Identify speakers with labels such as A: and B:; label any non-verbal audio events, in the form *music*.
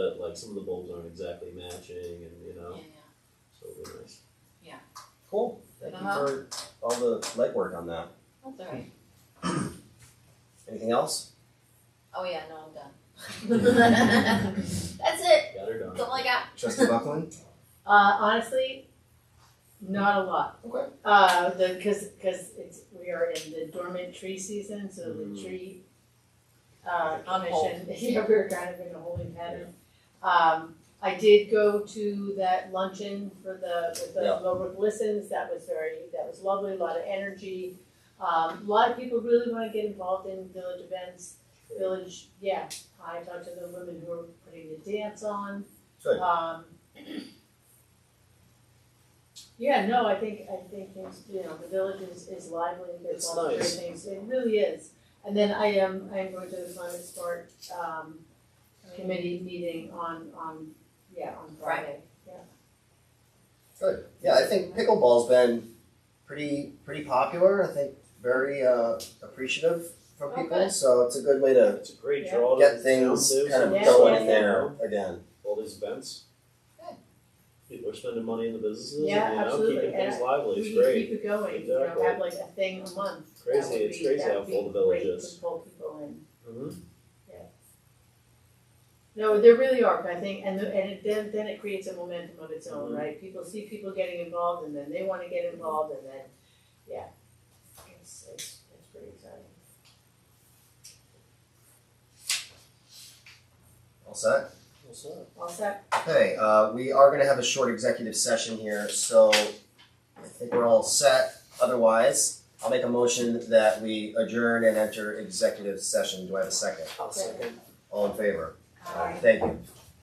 A: like some of the bulbs aren't exactly matching and, you know,
B: yeah,
A: so it'll be nice.
C: Cool. Thank
B: Uh-huh.
C: you for all the legwork on that.
B: that's all right.
C: Anything else?
B: Oh yeah, no, I'm done. *laughs* That's it,
A: Got her done.
B: that's all I got.
C: Trustee Buckland?
D: Uh, honestly, not a lot.
C: Okay.
D: Uh, the, cause, cause it's, we are in the dormant tree season, so the
C: Mm.
D: tree, uh,
B: Hold.
D: commission, *laughs* yeah, we're kind of in a holding pattern. Um, I did go to that luncheon for the, with the
C: Yeah.
D: Lowbrook Listens, that was very, that was lovely, a lot of energy. Um, a lot of people really wanna get involved in village events,
A: Great.
D: village, yeah, I talked to the women who are putting the dance on.
C: Good.
D: Um. Yeah, no, I think, I think things, you know, the village is, is lively, there's
A: It's
D: a lot of great
A: nice.
D: things, it really is. And then I am, I am going to the climate sport, um, committee meeting on, on, yeah, on Friday.
C: Good. Yeah, I think pickleball's been pretty pretty popular. I think very uh, appreciative from people.
D: Okay.
C: So it's a good way to
A: It's a great
D: Yeah.
A: draw to
C: get
A: the
C: things
A: town, too,
C: kind of
A: so
D: Yeah,
A: it's
C: going
A: like,
C: in
D: yeah.
C: there again.
A: All these events.
B: Good.
A: People are spending money in the businesses
D: Yeah,
A: and, you know,
D: absolutely,
A: keeping things
D: and
A: lively,
D: We
A: it's
D: need to
A: great.
D: keep it going, you know,
A: Exactly.
D: have like a thing a month, that
A: Crazy,
D: would
A: it's
D: be,
A: crazy
D: that
A: how
D: would
A: full the
D: be
A: village
D: great to
A: is.
D: pull people in.
A: Mhm.
D: No, there really are, but I think, and, the- and it, then, then it creates a momentum of its own,
A: Mhm.
D: right? People see people getting involved and then they wanna get involved and then, yeah. It's, it's, it's pretty exciting.
C: All set?
A: What's up?
D: All set?
C: Okay, uh, we are gonna have a short executive session here, so I think we're all set. Otherwise, I'll make a motion that we adjourn and enter executive session. Do I have a second?
A: I'll second.
C: All in favor?
B: All right.
C: Thank you.